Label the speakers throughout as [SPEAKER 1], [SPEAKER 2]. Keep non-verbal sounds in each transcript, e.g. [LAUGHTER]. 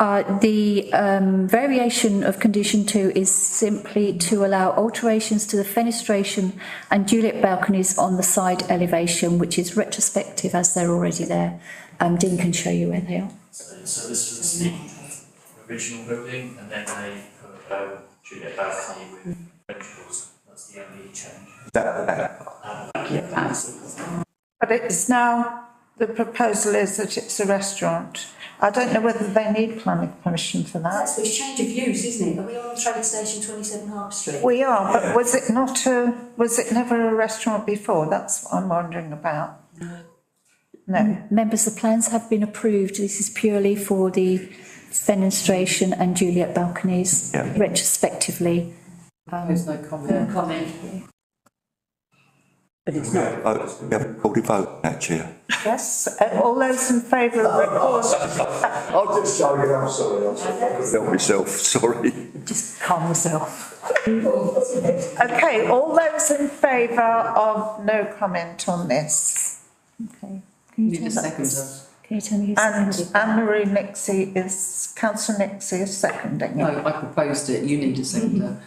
[SPEAKER 1] Uh, the, um, variation of condition two is simply to allow alterations to the fenestration and Juliet balconies on the side elevation, which is retrospective as they're already there. Um, Dean can show you where they are.
[SPEAKER 2] So, so this was the original building and then they put, um, Juliet balcony with ventricles. That's the only change.
[SPEAKER 3] But it's now, the proposal is that it's a restaurant. I don't know whether they need planning permission for that.
[SPEAKER 4] That's it's change of use, isn't it? Are we on train station twenty-seven Harp Street?
[SPEAKER 3] We are, but was it not a, was it never a restaurant before? That's what I'm wondering about. No,
[SPEAKER 1] Members, the plans have been approved. This is purely for the fenestration and Juliet balconies
[SPEAKER 5] Yeah.
[SPEAKER 1] retrospectively.
[SPEAKER 6] There's no comment.
[SPEAKER 4] Comment.
[SPEAKER 6] But it's
[SPEAKER 5] We
[SPEAKER 6] not,
[SPEAKER 5] haven't voted- Oh, we haven't called a vote now, Chair.
[SPEAKER 3] yes, uh, all those in favour of recall,
[SPEAKER 7] I'll just show you, I'm sorry, I'm sorry.
[SPEAKER 5] Help myself, [LAUGHS] sorry.
[SPEAKER 1] Just calm yourself.
[SPEAKER 3] okay, all those in favour of no comment on this?
[SPEAKER 1] Okay. Can you
[SPEAKER 6] need a
[SPEAKER 1] tell-
[SPEAKER 6] second.
[SPEAKER 1] Can you tell me who
[SPEAKER 3] And uh,
[SPEAKER 1] seconded? that?
[SPEAKER 3] Anne Marie Nixie is, councillor Nixie is seconding it.
[SPEAKER 6] No, I proposed it, you need a seconder.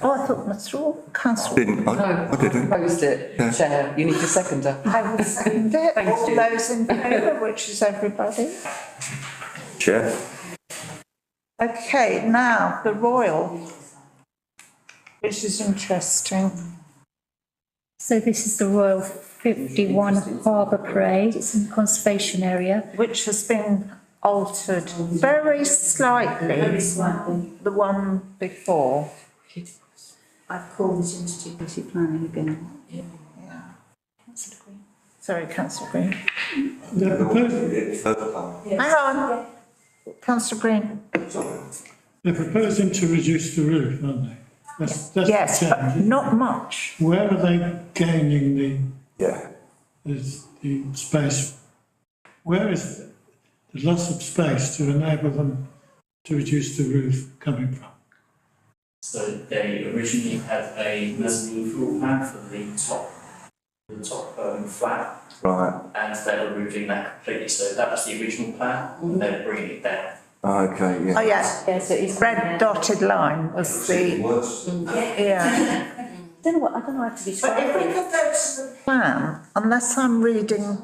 [SPEAKER 3] Oh, I thought Mr. Wall, councillor
[SPEAKER 5] Didn't, I,
[SPEAKER 6] [LAUGHS] No,
[SPEAKER 5] I
[SPEAKER 6] I
[SPEAKER 5] didn't.
[SPEAKER 6] proposed it,
[SPEAKER 5] Yeah.
[SPEAKER 6] Chair, you need a seconder.
[SPEAKER 3] I will second it.
[SPEAKER 6] Thanks,
[SPEAKER 3] All
[SPEAKER 6] Judy.
[SPEAKER 3] those in favour, which is everybody.
[SPEAKER 5] Chair.
[SPEAKER 3] Okay, now, the Royal, which is interesting.
[SPEAKER 1] So this is the Royal fifty-one Harbour Parade. It's in the conservation area.
[SPEAKER 3] which has been altered very
[SPEAKER 4] Very
[SPEAKER 3] slightly,
[SPEAKER 4] slightly.
[SPEAKER 3] the one before.
[SPEAKER 4] I've called this into committee planning again.
[SPEAKER 3] Sorry, councillor Green.
[SPEAKER 5] They've all voted it, first time.
[SPEAKER 3] Hang on. Councillor Green,
[SPEAKER 8] They're proposing to reduce the roof, aren't they? That's, that's the
[SPEAKER 3] yes, but
[SPEAKER 8] change.
[SPEAKER 3] not much.
[SPEAKER 8] Where are they gaining the,
[SPEAKER 5] Yeah.
[SPEAKER 8] is the space? Where is the loss of space to enable them to reduce the roof coming from?
[SPEAKER 2] So they originally had a mezzanine floor plan for the top, the top, um, flat.
[SPEAKER 5] Right,
[SPEAKER 2] and they're removing that completely. So that was the original plan, and they're bringing it down.
[SPEAKER 5] okay,
[SPEAKER 3] Oh,
[SPEAKER 5] yeah.
[SPEAKER 3] yes,
[SPEAKER 4] Yeah, so it's.
[SPEAKER 3] red dotted line was the,
[SPEAKER 5] Worse.
[SPEAKER 3] yeah.
[SPEAKER 4] Don't know what, I don't know how to
[SPEAKER 3] But if we
[SPEAKER 4] describe it.
[SPEAKER 3] could go to the plan, unless I'm reading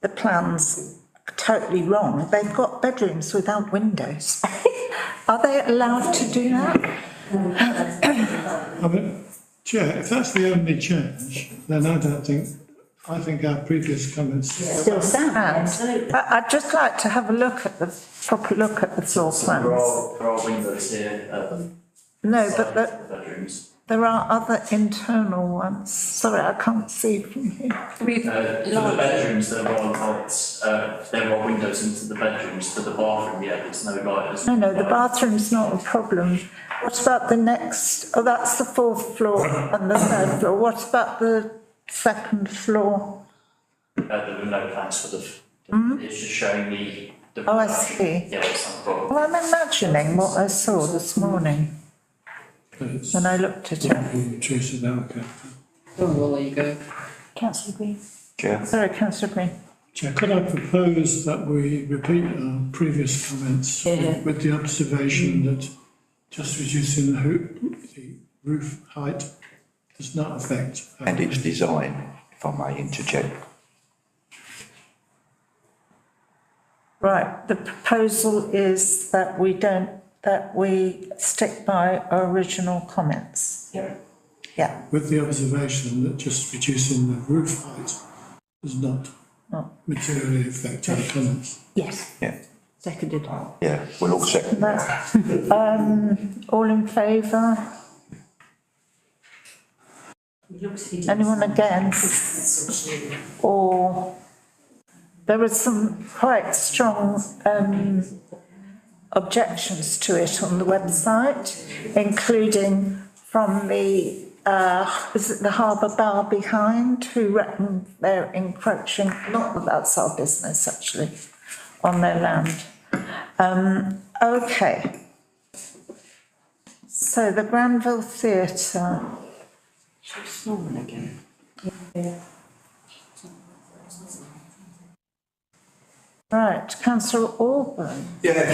[SPEAKER 3] the plans totally wrong, they've got bedrooms without
[SPEAKER 4] [LAUGHS]
[SPEAKER 3] windows. Are they allowed to do that?
[SPEAKER 8] I mean, Chair, if that's the only change, then I don't think, I think our previous comments,
[SPEAKER 4] Still sound,
[SPEAKER 3] And, but I'd just like to have a look at the, proper look at the floor
[SPEAKER 2] There
[SPEAKER 3] plans.
[SPEAKER 2] are, there are windows here at the
[SPEAKER 3] No,
[SPEAKER 2] sides
[SPEAKER 3] but
[SPEAKER 2] of
[SPEAKER 3] the,
[SPEAKER 2] the bedrooms.
[SPEAKER 3] there are other internal ones. Sorry, I can't see from here.
[SPEAKER 2] Uh, for the bedrooms, there are lights, uh, there are windows into the bedrooms, for the bathroom, yeah, there's no lighters.
[SPEAKER 3] No, no, the bathroom's not a problem. What about the next, oh, that's the fourth floor and the third floor. What about the second floor?
[SPEAKER 2] Uh, there were no plans for the, it's just showing the. the-
[SPEAKER 3] Mm-hmm. Oh, I see.
[SPEAKER 2] Yeah, it's not a problem.
[SPEAKER 3] Well, I'm imagining what I saw this morning
[SPEAKER 8] it's
[SPEAKER 3] when I looked at it.
[SPEAKER 8] reduced it out, okay.
[SPEAKER 6] Oh, well, there you go.
[SPEAKER 1] Councillor Green.
[SPEAKER 5] Chair.
[SPEAKER 3] Sorry, councillor Green.
[SPEAKER 8] Chair, could I propose that we repeat our previous comments with the observation that just reducing the hoo- the roof height does not affect. uh, our-
[SPEAKER 5] And its design, if I may interject.
[SPEAKER 3] Right, the proposal is that we don't, that we stick by our original comments.
[SPEAKER 2] Yeah.
[SPEAKER 3] Yeah,
[SPEAKER 8] With the observation that just reducing the roof height does not
[SPEAKER 3] Oh.
[SPEAKER 8] materially affect our comments.
[SPEAKER 3] yes,
[SPEAKER 5] Yeah,
[SPEAKER 4] seconded.
[SPEAKER 5] yeah, we'll all second that.
[SPEAKER 3] that's, um, all in favour? Anyone against? Or, there were some quite strong, um, objections to it on the website, including from the, uh, is it the harbour bar behind, who reckon they're encroaching, not that that's our business actually, on their land. Um, okay. So the Granville Theatre.
[SPEAKER 6] She's snoring again.
[SPEAKER 3] Right, councillor Orban.
[SPEAKER 5] Yeah,